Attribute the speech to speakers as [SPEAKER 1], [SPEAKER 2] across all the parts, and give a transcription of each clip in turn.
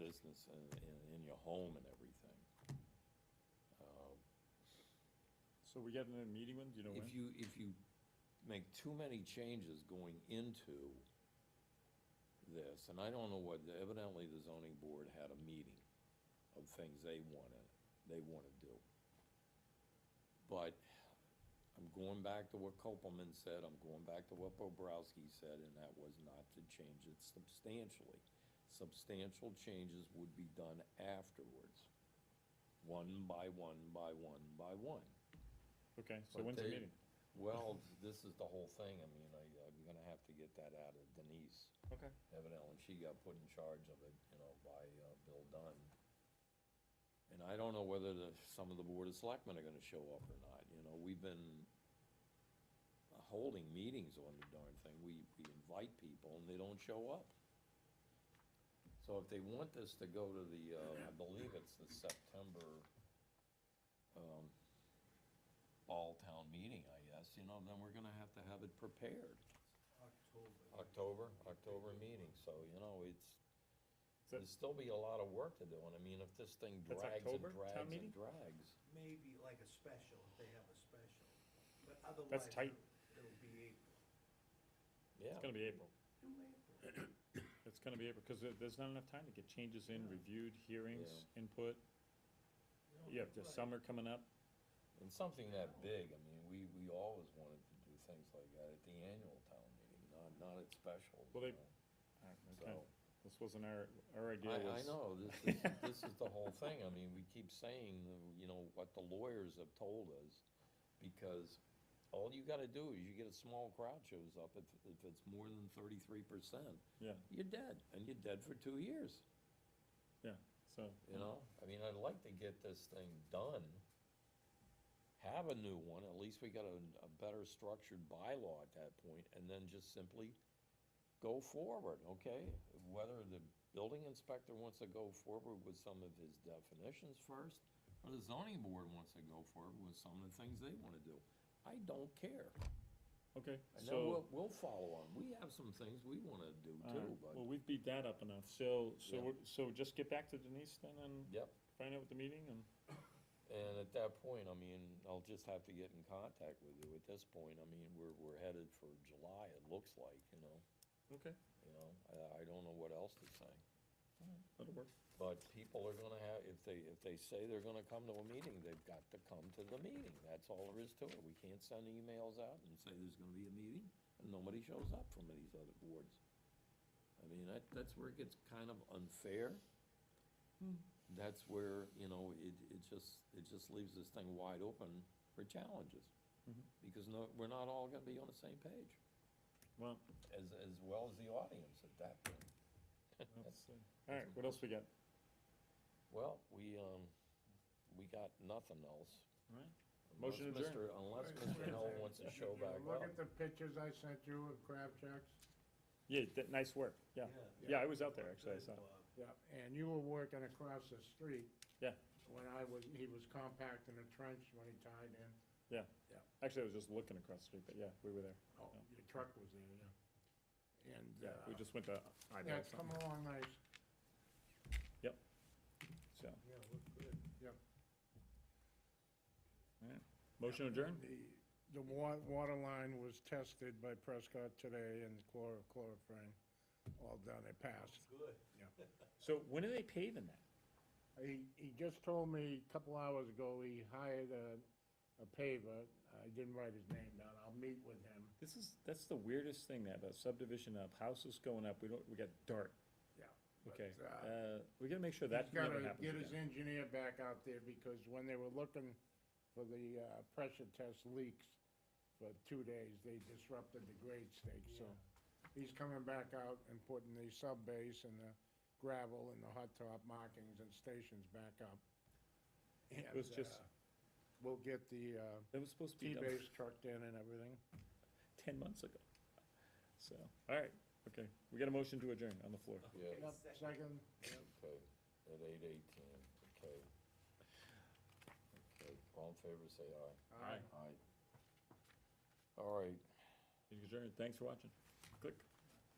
[SPEAKER 1] business and, and in your home and everything. Uh,
[SPEAKER 2] So we getting a meeting when, do you know when?
[SPEAKER 1] If you, if you make too many changes going into this, and I don't know what, evidently the zoning board had a meeting of things they wanna, they wanna do. But I'm going back to what Copelman said, I'm going back to what Bobrowski said, and that was not to change it substantially. Substantial changes would be done afterwards, one by one, by one, by one.
[SPEAKER 2] Okay, so
[SPEAKER 1] But
[SPEAKER 2] when's the
[SPEAKER 1] they-
[SPEAKER 2] meeting?
[SPEAKER 1] Well, this is the whole thing, I mean, I, I'm gonna have to get that out of Denise.
[SPEAKER 2] Okay.
[SPEAKER 1] Evidently, she got put in charge of it, you know, by, uh, Bill Dunn. And I don't know whether the, some of the board of selectmen are gonna show up or not, you know, we've been holding meetings on the darn thing, we, we invite people and they don't show up. So if they want this to go to the, uh, I believe it's the September, um, all-town meeting, I guess, you know, then we're gonna have to have it prepared.
[SPEAKER 3] October.
[SPEAKER 1] October, October meeting, so, you know, it's,
[SPEAKER 2] So-
[SPEAKER 1] there'll still be a lot of work to do, and I mean, if this thing
[SPEAKER 2] That's
[SPEAKER 1] drags and
[SPEAKER 2] October, town
[SPEAKER 1] drags
[SPEAKER 2] meeting?
[SPEAKER 1] and drags.
[SPEAKER 3] Maybe like a special, if they have a special, but otherwise.
[SPEAKER 2] tight.
[SPEAKER 3] it'll- It'll be April.
[SPEAKER 1] Yeah,
[SPEAKER 2] It's gonna be April.
[SPEAKER 3] Do April.
[SPEAKER 2] It's gonna be April, because there's not enough time to get changes in, reviewed, hearings, input.
[SPEAKER 3] No,
[SPEAKER 2] You have the
[SPEAKER 3] right.
[SPEAKER 2] summer coming up.
[SPEAKER 1] and something that big, I mean, we, we always wanted to do things like that at the annual town meeting, not, not at specials.
[SPEAKER 2] Well, they-
[SPEAKER 1] you know,
[SPEAKER 2] All right,
[SPEAKER 1] So.
[SPEAKER 2] Ah, okay. This wasn't our, our idea was.
[SPEAKER 1] I, I know, this is, this is the whole thing, I mean, we keep saying, you know, what the lawyers have told us, because all you gotta do is you get a small crowd shows up, if, if it's more than thirty-three percent,
[SPEAKER 2] Yeah,
[SPEAKER 1] you're dead, and you're dead for two years,
[SPEAKER 2] yeah, so.
[SPEAKER 1] you know? I mean, I'd like to get this thing done, have a new one, at least we got a, a better structured bylaw at that point, and then just simply go forward, okay? Whether the building inspector wants to go forward with some of his definitions first, or the zoning board wants to go forward with some of the things they wanna do. I don't care.
[SPEAKER 2] Okay,
[SPEAKER 1] And then
[SPEAKER 2] so.
[SPEAKER 1] we'll, we'll follow on. We have some things we wanna do
[SPEAKER 2] all right,
[SPEAKER 1] too,
[SPEAKER 2] uh, Well,
[SPEAKER 1] but,
[SPEAKER 2] we've beat that up enough, so, so,
[SPEAKER 1] Yeah.
[SPEAKER 2] we're- so just get back to Denise then and
[SPEAKER 1] yep.
[SPEAKER 2] find out what the meeting and.
[SPEAKER 1] And at that point, I mean, I'll just have to get in contact with you at this point, I mean, we're, we're headed for July, it looks like, you know,
[SPEAKER 2] Okay.
[SPEAKER 1] you know, I, I don't know what else to say.
[SPEAKER 2] That'll work.
[SPEAKER 1] But people are gonna have, if they, if they say they're gonna come to a meeting, they've got to come to the meeting, that's all there is to it, we can't send emails out and say there's gonna be a meeting, and nobody shows up from these other boards. I mean, that, that's where it gets kind of unfair. That's where, you know, it, it just, it just leaves this thing wide open for challenges.
[SPEAKER 2] Mhm.
[SPEAKER 1] Because no, we're not all gonna be on the same page,
[SPEAKER 2] Well,
[SPEAKER 1] as, as well as the audience at that point.
[SPEAKER 2] let's see. All right, what else we got?
[SPEAKER 1] Well, we, um, we got nothing else.
[SPEAKER 2] All right. Motion
[SPEAKER 1] Unless
[SPEAKER 2] adjourned.
[SPEAKER 1] Mr. Unless Mr. Hill wants to show back
[SPEAKER 4] Look
[SPEAKER 1] up.
[SPEAKER 4] at the pictures I sent you of crab jacks.
[SPEAKER 2] Yeah, that, nice work, yeah. Yeah, I was out there, actually, I saw. it.
[SPEAKER 3] uh,
[SPEAKER 4] Yeah. And you were working across the street.
[SPEAKER 2] Yeah.
[SPEAKER 4] When I was, he was compacting a trench when he tied in.
[SPEAKER 2] Actually, I was just looking across the street, but yeah, we were there.
[SPEAKER 4] Oh, your truck was there, yeah. And,
[SPEAKER 2] Yeah, we
[SPEAKER 4] uh,
[SPEAKER 2] just went to
[SPEAKER 4] yeah,
[SPEAKER 2] eyeball
[SPEAKER 4] it's come
[SPEAKER 2] something,
[SPEAKER 4] along nice.
[SPEAKER 2] so.
[SPEAKER 3] Yeah, look
[SPEAKER 2] Motion
[SPEAKER 3] good.
[SPEAKER 2] adjourned?
[SPEAKER 4] The, the wa- water line was tested by Prescott today and chlor, chlorophane, all done, it passed.
[SPEAKER 3] Good.
[SPEAKER 2] So when are they paving that?
[SPEAKER 4] He, he just told me a couple hours ago, he hired a, a paver, I didn't write his name down, I'll meet with him.
[SPEAKER 2] This is, that's the weirdest thing, that, about subdivision up, houses going up, we don't, we got dirt,
[SPEAKER 4] Yeah.
[SPEAKER 2] okay?
[SPEAKER 4] But, uh,
[SPEAKER 2] Uh, we gotta make sure that
[SPEAKER 4] He's
[SPEAKER 2] never
[SPEAKER 4] gotta
[SPEAKER 2] happens
[SPEAKER 4] get his
[SPEAKER 2] again.
[SPEAKER 4] engineer back out there, because when they were looking for the, uh, pressure test leaks for two days, they disrupted the grade stakes, so. He's coming back out and putting the sub base and the gravel and the hot top markings and stations back up. It
[SPEAKER 2] was just-
[SPEAKER 4] We'll get the, uh,
[SPEAKER 2] That was supposed to be done
[SPEAKER 4] T-base trucked in and everything.
[SPEAKER 2] ten months ago. So, all right, okay, we got a motion to adjourn on the floor.
[SPEAKER 1] Yeah,
[SPEAKER 4] Yep, second.
[SPEAKER 1] okay, at eight eighteen, okay. Okay, all in favor, say aye.
[SPEAKER 2] Aye.
[SPEAKER 1] Aye. All right,
[SPEAKER 2] Adjourn, thanks for watching. Click,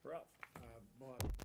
[SPEAKER 2] we're off.
[SPEAKER 4] Uh, Bob,